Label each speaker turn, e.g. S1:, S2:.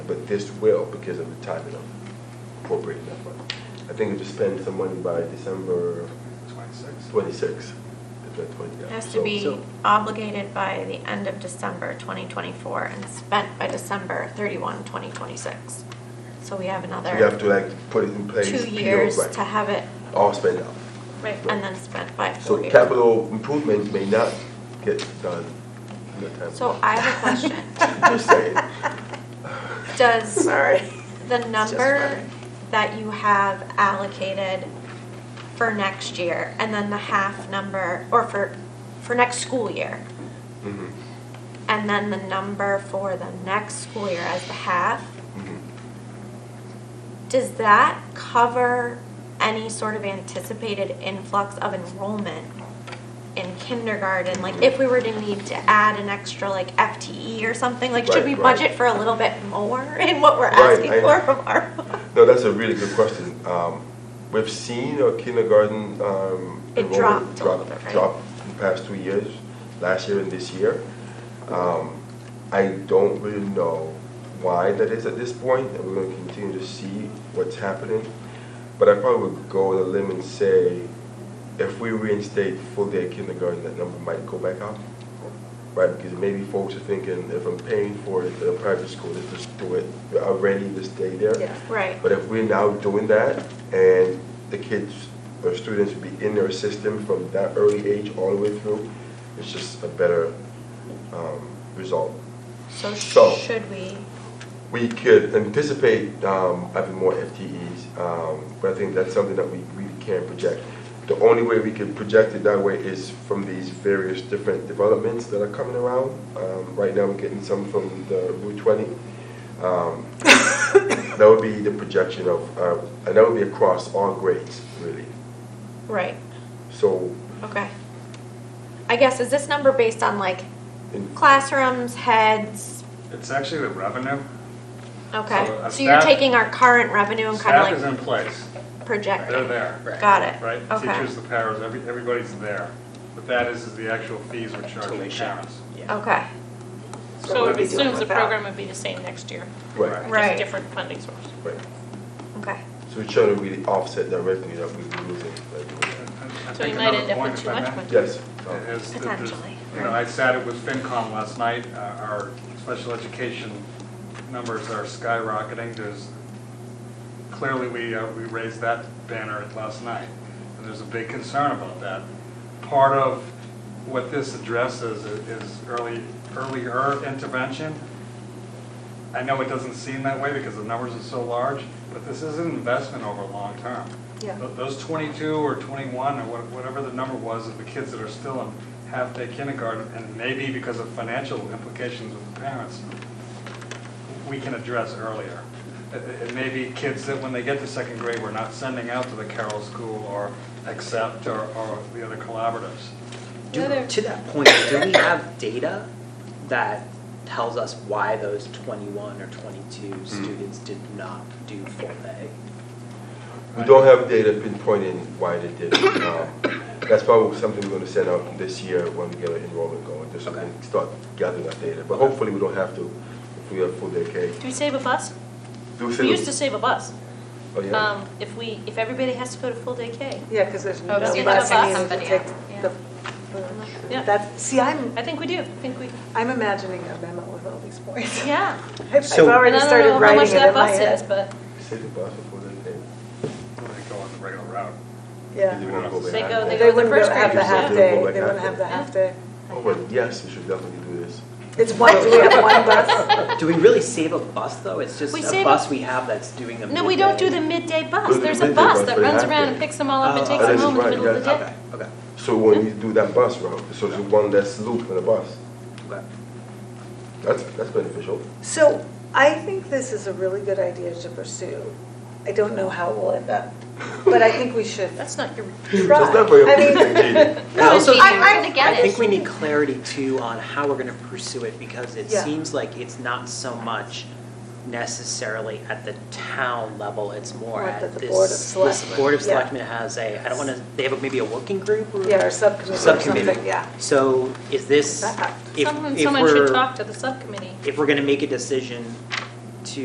S1: this will because of the timing of appropriating that money. I think we have to spend some money by December
S2: Twenty-six.
S1: twenty-six. if that's what- yeah.
S3: Has to
S1: So-
S3: be
S1: so-
S3: obligated by the end of December 2024 and spent by December 31, 2026. So we have
S1: So you have
S3: another
S1: to like put it in place.
S3: two
S1: PO,
S3: years
S1: right,
S3: to have it,
S1: All spent out.
S3: and then spent by
S1: So
S3: four years.
S1: capital improvement may not get done in the time.
S3: So I have a question.
S1: Just saying.
S3: Does
S4: Sorry.
S3: the
S4: just
S3: number
S4: funny.
S3: that you have allocated for next year and then the half number, or for, for next school year,
S1: Mhm,
S3: and then the number for the next school year as the half,
S1: mhm.
S3: Does that cover any sort of anticipated influx of enrollment in kindergarten? Like if we were to need to add an extra like FTE or something, like should
S1: Right,
S3: we
S1: right.
S3: budget for a little bit more in what we're
S1: Right,
S3: asking
S1: I-
S3: for from our?
S1: No, that's a really good question. Um, We've seen our kindergarten um,
S3: It
S1: enrollment
S3: dropped a
S1: drop-
S3: little bit, right?
S1: Drop in the past two years, last year and this year. Um, I don't really know why that is at this point, and we're gonna continue to see what's happening. But I probably would go on a limb and say, if we reinstate full day kindergarten, that number might go back up. Right, because maybe folks are thinking, if I'm paying for it at a private school, let's just do it already, to stay there.
S4: Yeah.
S3: Right,
S1: But if we're now doing that, and the kids or students will be in their system from that early age all the way through, it's just a better um, result.
S3: so
S1: So-
S3: should we,
S1: We could anticipate um, having more FTEs, um, but I think that's something that we really can't project. The only way we could project it that way is from these various different developments that are coming around. Um, Right now, we're getting some from the Route 20. Um, That would be the projection of, uh, and that would be across all grades, really.
S3: right,
S1: So
S3: okay. I guess, is this number based on like
S1: in
S3: classrooms, heads?
S2: It's actually the revenue.
S3: Okay,
S2: So, uh,
S3: so you're
S2: staff-
S3: taking our current revenue and
S2: Staff
S3: kind of
S2: is
S3: like
S2: in place.
S3: projecting?
S2: They're there,
S3: Got it,
S2: right?
S3: okay,
S2: Teachers, the paras, every- everybody's there. What that is, is the actual fees we're charging the
S4: Tuition.
S2: parents.
S3: okay.
S4: So
S5: So
S4: what are
S5: it
S4: we doing
S5: assumes the
S4: with that?
S5: program would be the same next year,
S1: Right,
S3: Right.
S5: just different funding source.
S1: right.
S3: Okay.
S1: So we're trying to really offset that revenue that we're losing.
S2: I- I
S5: So you
S2: think
S5: might
S2: another
S5: end up
S2: point,
S5: with
S2: if
S5: too
S2: I
S5: much
S2: may,
S5: money.
S1: Yes.
S2: is that there's-
S3: Potentially,
S2: You know, I sat it with FinCom last night. Uh, Our special education numbers are skyrocketing. There's, clearly, we, uh, we raised that banner last night. And there's a big concern about that. Part of what this addresses i- is early, earlier intervention. I know it doesn't seem that way because the numbers are so large, but this is an investment over long term.
S4: Yeah.
S2: Th- Those 22 or 21 or what- whatever the number was of the kids that are still in half-day kindergarten, and maybe because of financial implications with the parents, we can address earlier. It- It it may be kids that when they get to second grade, we're not sending out to the Carroll School or Accept or or the other collaboratives.
S4: Do,
S3: Another-
S4: to that point, do we have data that tells us why those 21 or 22 students did not do full day?
S1: We don't have data pinpointing why they did it. Um, That's probably something we're gonna send out this year when we get our enrollment going, just so we can start gathering that data. But hopefully, we don't have to, if we have full day K.
S5: Do we save a bus?
S1: Do we
S5: We
S1: say,
S5: used to save a bus.
S1: oh, yeah?
S5: Um, If we, if everybody has to go to full day K.
S6: Yeah, because there's no
S5: so Oh, you
S6: bus,
S5: have a
S6: I mean,
S3: bus.
S6: you take
S3: Somebody,
S6: the,
S5: Yeah.
S6: that's, see, I'm,
S5: I think we do, I think we,
S6: I'm imagining a memo with all these points.
S5: yeah.
S6: I've I've
S4: So-
S5: And
S6: already
S5: I don't
S6: started
S5: know how much
S6: writing it
S5: that
S6: in my
S5: bus is,
S6: head.
S5: but
S1: Say the bus for full day K.
S2: They go on the regular route.
S1: They
S6: Yeah.
S1: wanna go
S5: They
S1: back.
S5: go- they
S6: They
S5: go- the
S6: wouldn't
S5: first
S6: go- have the
S5: graders,
S6: half
S1: yeah.
S6: day,
S1: Like
S6: they
S1: half
S6: wouldn't have the
S1: day.
S6: half day.
S1: Oh, well, yes, we should definitely do this.
S6: It's one, do we have one bus?
S4: Do we really save a bus, though? It's just
S5: We
S4: a
S5: save
S4: bus we have that's doing the
S5: No, we don't do
S4: midday.
S5: the midday
S1: Do
S5: bus.
S1: the
S5: There's a
S1: midday
S5: bus
S1: bus,
S5: that
S1: they
S5: runs
S1: have
S5: around
S1: to.
S5: and picks them all up and
S4: Oh,
S5: takes them
S1: that is
S5: home in the
S1: right,
S5: middle of the
S1: yes.
S5: day.
S4: Okay, okay,
S1: So we won't need to do that bus route, so it's one that's loop in the bus.
S4: okay.
S1: That's, that's beneficial.
S6: So I think this is a really good idea to pursue. I don't know how it will end up, but I think we should
S5: That's not your,
S6: try.
S1: That's not very
S6: I mean,
S1: optimistic.
S4: And also,
S6: I- I-
S3: Trying to get
S4: I
S3: it.
S4: think we need clarity too on how we're gonna pursue it, because it
S6: Yeah.
S4: seems like it's not so much necessarily at the town level, it's more
S6: More at
S4: at
S6: the Board of
S4: this, this
S6: Selectmen.
S4: Board of
S6: Yeah.
S4: Selectmen has a, I don't wanna, they have a- maybe a working group or?
S6: Yeah, or subcommittee or
S4: Subcommittee.
S6: something, yeah.
S4: So is this,
S6: That-
S4: if,
S5: someone,
S4: if
S5: someone should
S4: we're,
S5: talk to the subcommittee.
S4: if we're gonna make a decision